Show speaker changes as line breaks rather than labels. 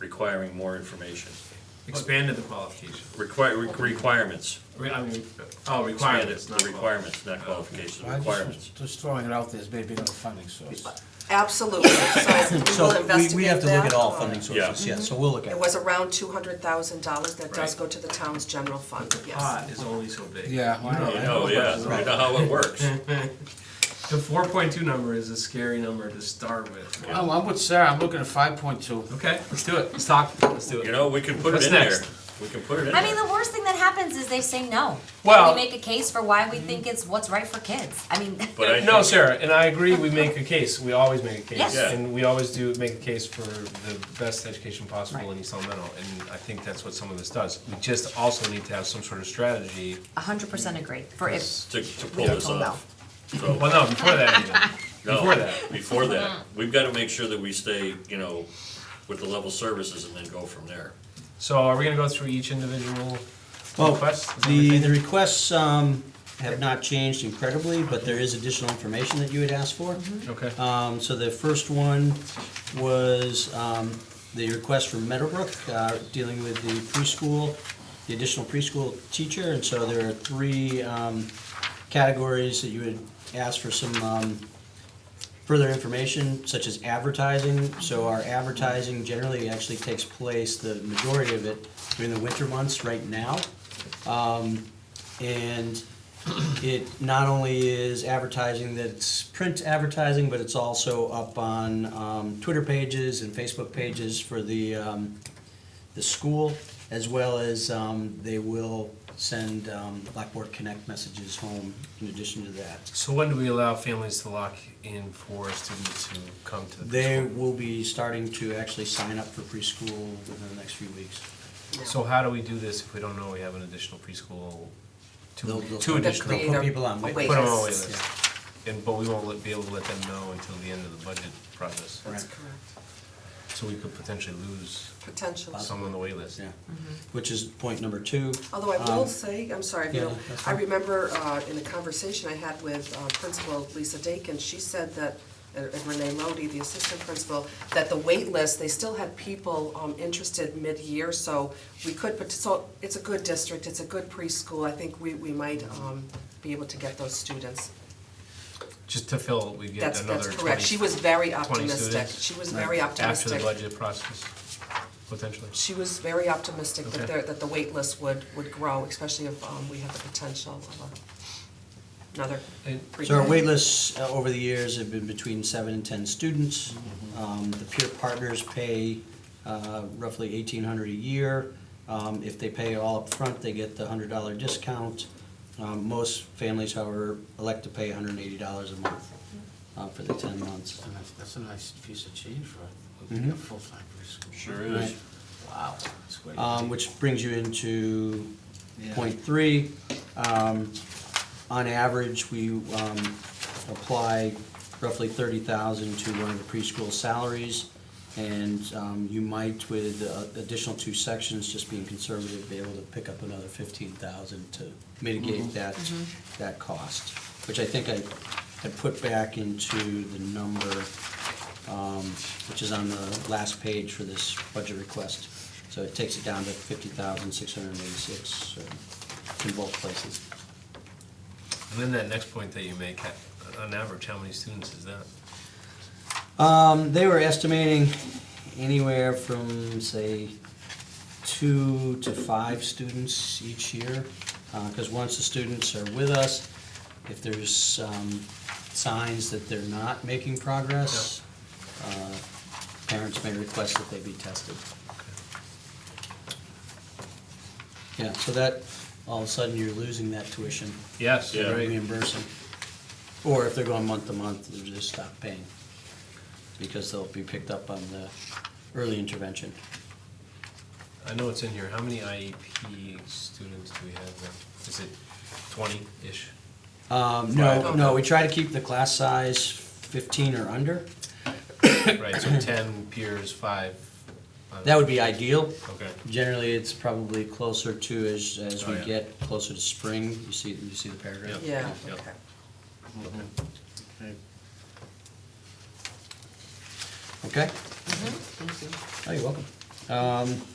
requiring more information,
Expanded the qualification.
require, requirements.
Re- I mean, oh,
Expanded
requirements, not
Requirements, not qualifications,
I just was
requirements.
Just throwing it out there as maybe another funding source.
Absolutely, so we
So
will
we-
investigate that.
We have to look at all funding sources,
Yeah.
yeah, so we'll look at
It
it.
was around two hundred thousand dollars that does
Right.
go to the town's general fund,
The
yes.
pot is only so big.
Yeah, I know.
You know, yeah, you know how it works.
The four point two number is a scary number to start with.
I'm, I'm with Sarah, I'm looking at five point two.
Okay, let's do it. Let's talk. Let's do it.
You know, we can put it
What's
in there.
next?
We can put it in
I mean,
there.
the worst thing that happens is they say no.
Well-
we make a case for why we think it's what's right for kids. I mean,
But I
no,
think-
Sarah, and I agree. We make a case. We always make a case,
Yes.
Yeah.
and we always do make a case for the best education possible in East Elemental. And I think that's what some of this does. We just also need to have some sort of strategy.
hundred percent agree. For if
To, to pull
we are
this
told no.
off. So-
Well, no, before that, even.
No,
Before that.
Before that,
Mm-hmm.
we've gotta make sure that we stay, you know, with the level services and then go from there.
So are we gonna go through each individual
Well,
request? Is that what
the,
you're
the
thinking?
requests, um, have not changed incredibly, but there is additional information that you had asked for.
Mm-hmm.
Okay.
Um, so the first one was, um, the request from Meadowbrook, uh, dealing with the preschool, the additional preschool teacher, and so there are three, um, categories that you would ask for some, um, further information, such as advertising. So our advertising generally actually takes place, the majority of it, during the winter months right now. Um, and it not only is advertising that's print advertising, but it's also up on um, Twitter pages and Facebook pages for the, um, the school, as well as um, they will send um, Blackboard Connect messages home in addition to that.
So when do we allow families to lock in for students who come to the
They
preschool?
will be starting to actually sign up for preschool within the next few weeks.
So how do we do this if we don't know we have an additional preschool?
They'll-
Two,
they'll-
two
They'll
additional.
create
They'll
a-
put people on
a
wait
Put them on a wait
list.
list. And, but we won't let- be able to let them know until the end of the budget process.
That's
Right.
correct,
So we could potentially lose
potential.
some on the wait list.
Yeah,
Mm-hmm.
which is point number two.
Although I will
Um,
say, I'm sorry, if you
yeah,
don't-
that's
I
fine.
remember uh, in a conversation I had with uh, Principal Lisa Dakin, she said that, and Renee Lodi, the assistant principal, that the wait list, they still had people um, interested mid-year, so we could, but, so, it's a good district, it's a good preschool, I think we, we might um, be able to get those students.
Just to fill, we get
That's,
another
that's
twenty.
correct, she was very
20
optimistic,
students?
she was very
After the
optimistic.
budget process, potentially.
She was very optimistic that
Okay.
there, that the wait list would, would grow, especially if um, we have the potential of a- another
And
pre
So our wait lists uh, over the years have been between seven and ten students. Um, The peer partners pay uh, roughly eighteen hundred a year. Um, If they pay all up front, they get the hundred dollar discount. Um, Most families, however, elect to pay hundred and eighty dollars a month uh, for the ten months.
That's a nice- That's a nice piece of change for a
Mhm.
full-time preschool.
Sure
Right.
is.
Wow. that's great.
Um, Which brings you into
Yeah.
point three. Um, On average, we um, apply roughly thirty thousand to one of the preschool salaries. And um, you might, with uh, additional two sections, just being conservative, be able to pick up another fifteen thousand to mitigate that, that cost. Which I think I had put back into the number um, which is on the last page for this budget request. So it takes it down to fifty thousand, six hundred and eighty-six uh, in both places.
And then that next point that you make, ha- on average, how many students is that?
Um, they were estimating anywhere from, say, two to five students each year. Because once the students are with us, if there's um, signs that they're not making progress, uh, parents may request that they be tested. Yeah, so that, all of a sudden, you're losing that tuition
Yes,
Yeah.
right.
reimbursing. Or if they're going month to month, they'll just stop paying, because they'll be picked up on the early intervention.
I know it's in here. How many IEP students do we have now? Is it twenty-ish?
Um, no, no, we try to keep the class size fifteen or under,
Right, so ten peers, five. uh,
that would be ideal.
Okay,
Generally, it's probably closer to, as, as we
Oh, yeah.
get closer to spring, you see, you see the
Yep.
paragraph?
Yeah,
Yep.
okay.
Okay.
Okay,
Thank you.
oh, you're welcome.